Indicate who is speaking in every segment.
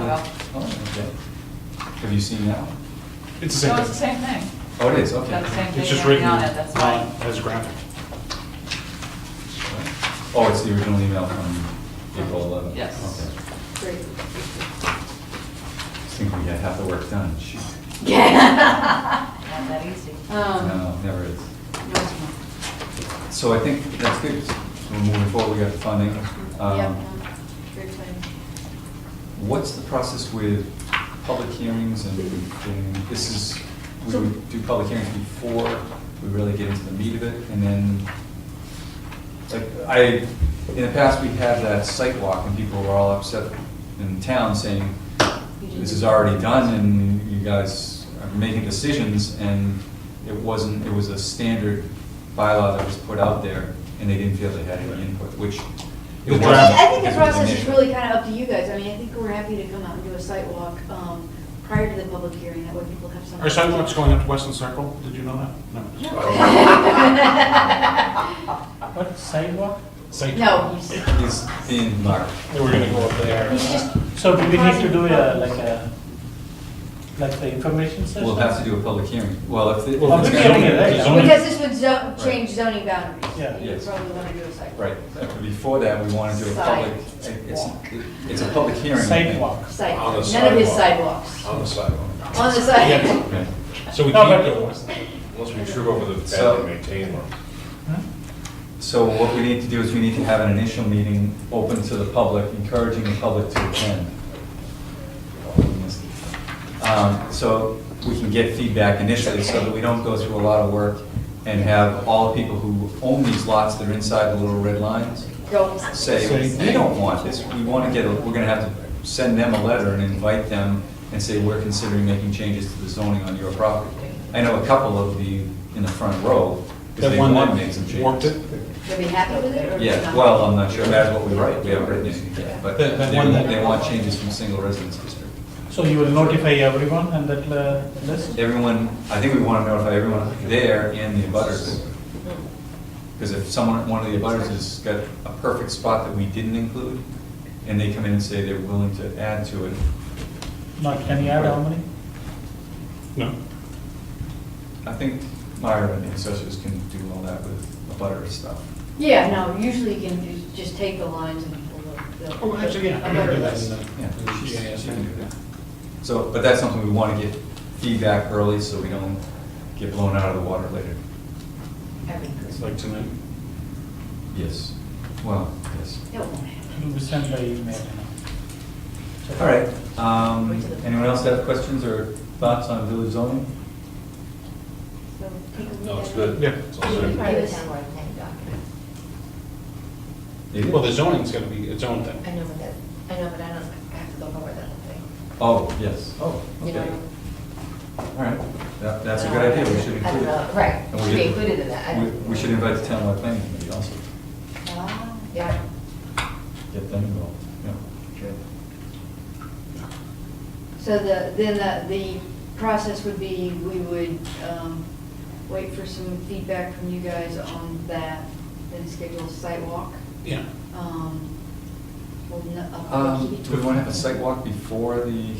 Speaker 1: well.
Speaker 2: Oh, okay. Have you seen that one?
Speaker 3: It's the
Speaker 1: No,
Speaker 3: same
Speaker 1: it's the
Speaker 3: thing.
Speaker 1: same thing.
Speaker 2: Oh, it is,
Speaker 1: It's got the
Speaker 2: okay.
Speaker 1: same
Speaker 3: It's just
Speaker 1: thing
Speaker 3: written
Speaker 1: on it, that's why.
Speaker 3: on as graphic.
Speaker 2: Oh, it's the original email from April 11th?
Speaker 1: Yes.
Speaker 2: Okay. Just think we had half the work done. Shoot.
Speaker 1: Not that easy.
Speaker 4: Um,
Speaker 2: No, never is.
Speaker 4: no, it's not.
Speaker 2: So I think that's good. We're moving forward, we got the funding. Um,
Speaker 4: Yep, no, great plan.
Speaker 2: What's the process with public hearings and and this is, we
Speaker 4: So-
Speaker 2: would do public hearings before we really get into the meat of it and then, like, I, in the past, we had that site walk and people were all upset in town saying,
Speaker 4: You didn't
Speaker 2: this
Speaker 4: do
Speaker 2: is
Speaker 4: it."
Speaker 2: already done and you guys are making decisions and it wasn't, it was a standard bylaw that was put out there and they didn't feel they had any input, which. it
Speaker 3: The
Speaker 2: wasn't
Speaker 3: draft-
Speaker 4: I think the
Speaker 2: because it was
Speaker 4: process is
Speaker 2: initial.
Speaker 4: really kind of up to you guys. I mean, I think we're happy to come out and do a site walk um, prior to the public hearing, that way people have something.
Speaker 3: Our sidewalk's going up to Weston Circle, did you know that?
Speaker 4: No.
Speaker 3: No.
Speaker 5: What, sidewalk?
Speaker 3: Site-
Speaker 4: No, you said-
Speaker 2: It's in March.
Speaker 3: They were gonna go up there.
Speaker 4: you just.
Speaker 5: So do we need to do a, like a, like the information session?
Speaker 2: We'll have to do a public hearing. Well, if. it-
Speaker 3: Well,
Speaker 5: we
Speaker 2: it's
Speaker 5: can
Speaker 2: gonna-
Speaker 5: hear that, yeah.
Speaker 4: Because this would zo- change zoning boundaries.
Speaker 5: Yeah.
Speaker 4: You
Speaker 2: Yes.
Speaker 4: probably want to do a site walk.
Speaker 2: Right, but before that, we want to do a public, it's, it's a public hearing. I think.
Speaker 5: Sidewalk.
Speaker 4: Site,
Speaker 6: On the
Speaker 4: none of his
Speaker 6: sidewalk.
Speaker 4: sidewalks.
Speaker 6: On the sidewalk,
Speaker 4: On the side.
Speaker 2: Okay.
Speaker 3: So we
Speaker 5: No, but-
Speaker 3: can't go to Weston.
Speaker 6: unless we trip over the
Speaker 2: So-
Speaker 6: badly maintained one.
Speaker 5: Hmm?
Speaker 2: So what we need to do is we need to have an initial meeting open to the public, encouraging the public to attend. Um, So we can get feedback initially, so that we don't go through a lot of work and have all the people who own these lots that are inside the little red lines
Speaker 4: Don't.
Speaker 2: say, we don't want this, we want to get, a we're going to have to send them a letter and invite them and say, we're considering making changes to the zoning on your property. I know a couple of the, in the front row, because
Speaker 3: That
Speaker 2: they
Speaker 3: one
Speaker 2: want to make some
Speaker 3: that
Speaker 2: changes.
Speaker 3: warped it,
Speaker 4: They'll be happy with it or?
Speaker 2: Yeah,
Speaker 4: not?
Speaker 2: well, um, I'm not sure, that's what we write, we haven't written anything yet, but
Speaker 3: That- that
Speaker 2: they
Speaker 3: one that-
Speaker 2: they want changes from single residence district.
Speaker 5: So you will notify everyone and that uh, list?
Speaker 2: Everyone, I think we want to notify everyone there and the abutters. Because if someone, one of the abutters has got a perfect spot that we didn't include, and they come in and say they're willing to add to it,
Speaker 5: Not, can you add how many?
Speaker 3: no.
Speaker 2: I think Myra and the assessors can do all that with abutter stuff.
Speaker 4: Yeah, no, usually you can ju- just take the lines and pull the. the-
Speaker 3: Oh, actually, yeah, I'm
Speaker 4: the-
Speaker 3: gonna do that in the-
Speaker 2: Yeah,
Speaker 3: in the
Speaker 2: she-
Speaker 3: GIS.
Speaker 2: she can do that. So, but that's something we want to get feedback early, so we don't get blown out of the water later.
Speaker 3: It's like tonight.
Speaker 2: Yes. Well, yes.
Speaker 4: It won't happen.
Speaker 5: It will be sent by email. you know.
Speaker 2: All right, um, anyone else have questions or thoughts on village zoning?
Speaker 4: So take a look
Speaker 6: No, it's
Speaker 4: at it.
Speaker 6: good.
Speaker 3: Yeah.
Speaker 6: It's all
Speaker 4: Right.
Speaker 6: good.
Speaker 7: Part of the town board planning document.
Speaker 2: Maybe?
Speaker 3: Well, the zoning's gonna be its own
Speaker 7: I
Speaker 3: thing.
Speaker 7: know, but that, I know, but I don't, I have to go over that whole thing.
Speaker 2: Oh, yes, oh,
Speaker 7: You
Speaker 2: okay,
Speaker 7: know?
Speaker 2: all right, that, that's a good idea, we should
Speaker 7: I don't
Speaker 2: include
Speaker 7: know,
Speaker 2: it.
Speaker 7: Right,
Speaker 2: And we
Speaker 7: should be
Speaker 2: did-
Speaker 7: included in that. I-
Speaker 2: We, we should invite the townwide planning committee also,
Speaker 4: Ah.
Speaker 7: Yeah.
Speaker 2: get them involved, yeah.
Speaker 4: So the, then the, the process would be, we would um, wait for some feedback from you guys on that, then schedule a site walk.
Speaker 3: Yeah.
Speaker 4: Um, we'll kn- a public
Speaker 2: Um, do we
Speaker 4: hearing.
Speaker 2: wanna have a site walk before the,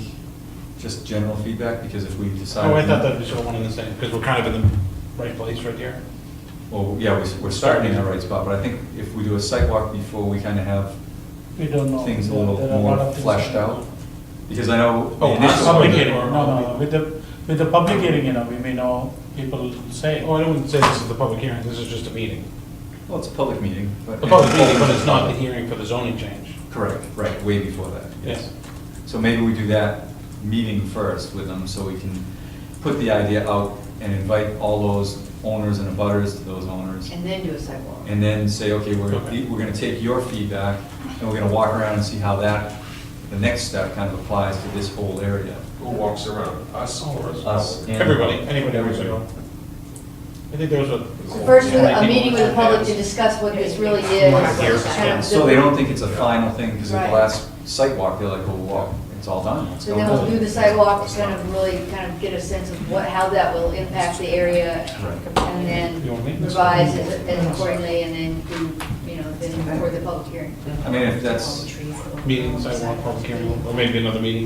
Speaker 2: just general feedback, because if we decide.
Speaker 3: Oh, I thought that was all one and the same, because we're kind of in the right place right here.
Speaker 2: Well, yeah, we, we're starting in the right spot, but I think if we do a site walk before, we kinda have
Speaker 5: We don't know.
Speaker 2: things a
Speaker 5: There-
Speaker 2: little
Speaker 5: there are lot
Speaker 2: more
Speaker 5: of things
Speaker 2: fleshed
Speaker 5: going
Speaker 2: out,
Speaker 5: on.
Speaker 2: because I know. the
Speaker 3: Oh,
Speaker 2: initial-
Speaker 3: public
Speaker 5: Public hearing,
Speaker 3: or-
Speaker 5: no, no, with the, with the public hearing, you know, we may know, people will say,
Speaker 3: Oh,
Speaker 5: oh,
Speaker 3: I don't say this is the public hearing, this is just a meeting.
Speaker 2: Well, it's a public meeting, but.
Speaker 3: A public meeting, but it's not the hearing for the zoning change.
Speaker 2: Correct, right, way before that, yes. So maybe we do that meeting first with them, so we can put the idea out and invite all those owners and abutters to those owners.
Speaker 4: And then do a site walk.
Speaker 2: And then say, okay, we're,
Speaker 3: Okay.
Speaker 2: we're gonna take your feedback, and we're gonna walk around and see how that, the next step kind of applies to this whole area.
Speaker 6: Who walks around? Us or us?
Speaker 2: Us and-
Speaker 3: Everybody, anybody,
Speaker 2: Everybody.
Speaker 3: everybody. I think there was a.
Speaker 4: So First,
Speaker 3: Yeah,
Speaker 4: with
Speaker 3: I
Speaker 4: a
Speaker 3: think
Speaker 4: meeting
Speaker 3: we
Speaker 4: with the public to
Speaker 3: should-
Speaker 4: discuss what this really is.
Speaker 7: Right here.
Speaker 4: kind of
Speaker 2: So they don't think it's a final thing, because at
Speaker 4: Right.
Speaker 2: the last site walk, they're like, well, wow, it's all done, let's
Speaker 4: So
Speaker 2: go.
Speaker 4: then we'll do the sidewalk, to kind
Speaker 2: Right.
Speaker 4: of really kind of get a sense of what, how that will impact the area, and
Speaker 3: You want me?
Speaker 4: then revise as- as accordingly, and then do, you know, then record the public hearing.
Speaker 2: I mean, if that's,
Speaker 7: All the trees.
Speaker 3: Meeting, sidewalk, public hearing, or maybe another meeting